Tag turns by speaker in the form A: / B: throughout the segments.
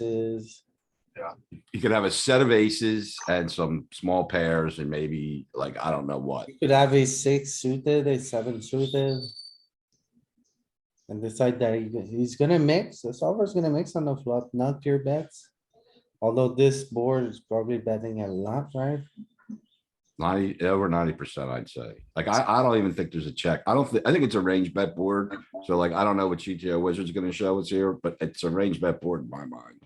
A: aces.
B: You could have a set of aces and some small pairs and maybe like, I don't know what.
A: You could have a six suited, a seven suited. And decide that he- he's gonna mix, the solver's gonna mix on the flop, not pure bets. Although this board is probably betting a lot, right?
B: Ninety, over ninety percent, I'd say. Like, I, I don't even think there's a check. I don't, thi- I think it's a range bet board. So like, I don't know what GTO wizard's gonna show us here, but it's a range bet board in my mind.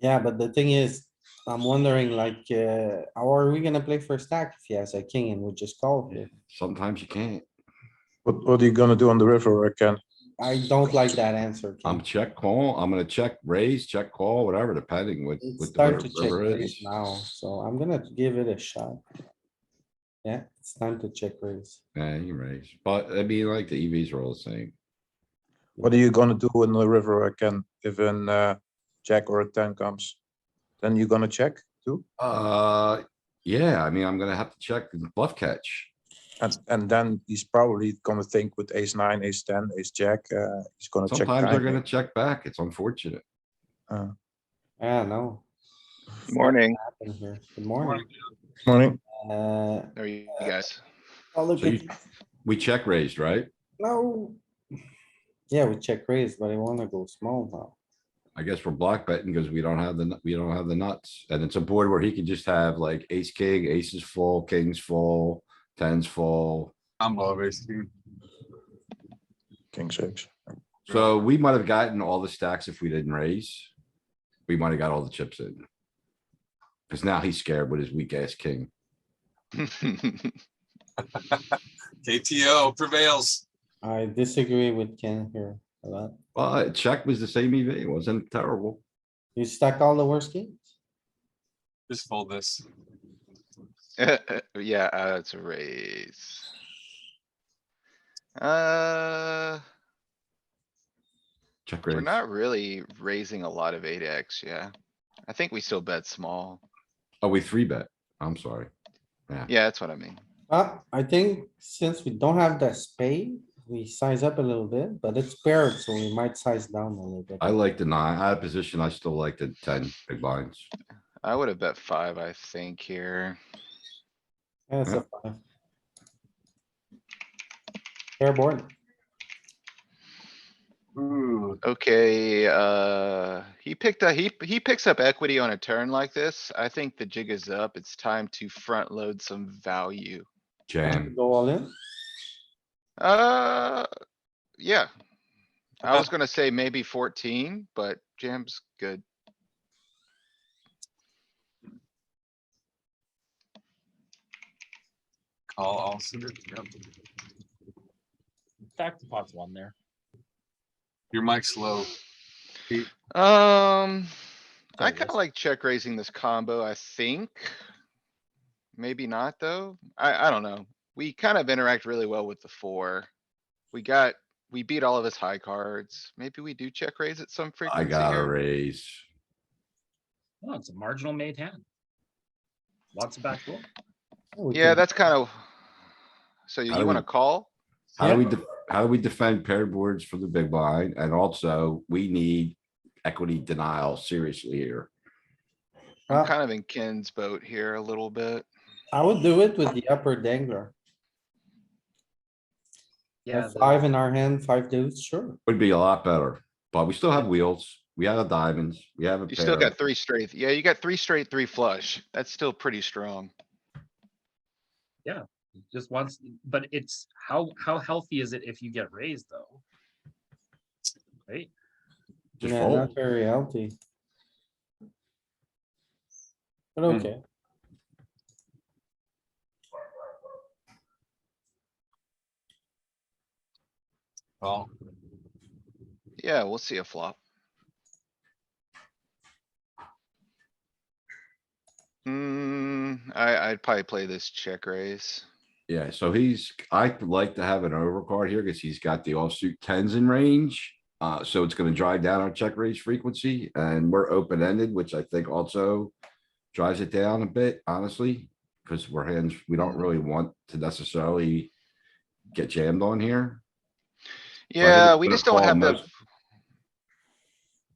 A: Yeah, but the thing is, I'm wondering like, uh, how are we gonna play for stack if he has a king and we just call here?
B: Sometimes you can't.
C: What, what are you gonna do on the river, Ken?
A: I don't like that answer. Ken.
B: I'm check call. I'm gonna check raise, check call, whatever, depending what,
A: It's
B: what the
A: time to
B: ri-
A: check
B: river
A: raise
B: is.
A: now, so I'm gonna give it a shot. Yeah, it's time to check raise.
B: Yeah, you raise, but I mean, like the EVs are all the same.
C: What are you gonna do on the river, Ken, if an uh, jack or a ten comes? Then you're gonna check too,
B: Uh, yeah, I mean, I'm gonna have to check the bluff catch.
C: and, and then he's probably gonna think with ace nine, ace ten, ace jack, uh, he's gonna check.
B: Sometimes they're
C: back.
B: gonna check back. It's unfortunate.
A: Yeah, no.
D: Morning.
A: happened here. Mm-hmm. Good morning.
C: Morning,
A: Uh,
D: There you you guys.
A: oh, look
B: So you-
A: at-
B: We check raised, right?
A: no. Yeah, we check raise, but I wanna go small now.
B: I guess we're block betting because we don't have the, nu- we don't have the nuts. And it's a board where he can just have like ace, king, aces full, kings full, tens full.
E: I'm always
C: king six.
B: So we might have gotten all the stacks if we didn't raise. We might have got all the chips in. Cause now he's scared with his weak ass king.
E: KTO prevails.
A: I disagree with Ken here a lot.
B: Well, check was the same EV. It wasn't terrible.
A: You stack all the worst games?
E: Just fold this.
D: Yeah, uh, it's a raise. Uh,
B: Check
D: we're
B: raise.
D: not really raising a lot of eight X, yeah. I think we still bet small.
B: Oh, we three bet. I'm sorry.
D: Yeah, that's what I mean.
A: Uh, I think since we don't have the spade, we size up a little bit, but it's paired, so we might size down a little bit.
B: I like the nine. Out of position, I still like the ten big blinds.
D: I would have bet five, I think here.
A: Yeah, it's a five. Fair board.
E: Ooh,
D: Okay, uh, he picked a, he, he picks up equity on a turn like this. I think the jig is up. It's time to front load some value.
B: Jam.
A: Go all in.
D: Uh, yeah. I
E: Okay.
D: was gonna say maybe fourteen, but jam's good.
E: call all suited. Yep.
F: Stack the pot's one there.
E: Your mic's low.
D: Um, I
F: it
D: kinda
F: is.
D: like check raising this combo, I think. Maybe not, though. I, I don't know. We kind of interact really well with the four. We got, we beat all of his high cards. Maybe we do check raise at some
B: I
D: frequency
B: gotta
D: here.
B: raise.
F: Oh, it's a marginal made hand. Lots of backdoor.
A: we
D: Yeah,
A: can-
D: that's kind of. So you
B: I
D: you wanna
B: would-
D: call?
B: How do we, def- how do we defend paired boards from the big blind? And also, we need equity denial seriously here.
A: Uh,
D: I'm kind of in Ken's boat here a little bit.
A: I would do it with the upper dangler. We
F: Yeah,
A: have
F: the-
A: Five in our hand, five dudes, sure.
B: Would be a lot better, but we still have wheels. We have a diamonds. We have a
D: You still got
B: pair.
D: three straight. Yeah, you got three straight, three flush. That's still pretty strong.
F: just wants, but it's how, how healthy is it if you get raised though? Right?
B: Just
A: Yeah, not
B: fold.
A: very healthy. But
E: Hmm.
A: okay,
E: Call.
D: Yeah, we'll see a flop. Hmm, I, I'd probably play this check raise.
B: Yeah, so he's, I like to have an overcard here because he's got the offsuit tens in range. Uh, so it's gonna drive down our check raise frequency and we're open ended, which I think also drives it down a bit, honestly, because we're hands, we don't really want to necessarily get jammed on here. So I think
D: Yeah,
B: it's
D: we
B: gonna
D: just don't
B: call
D: have the,
B: most-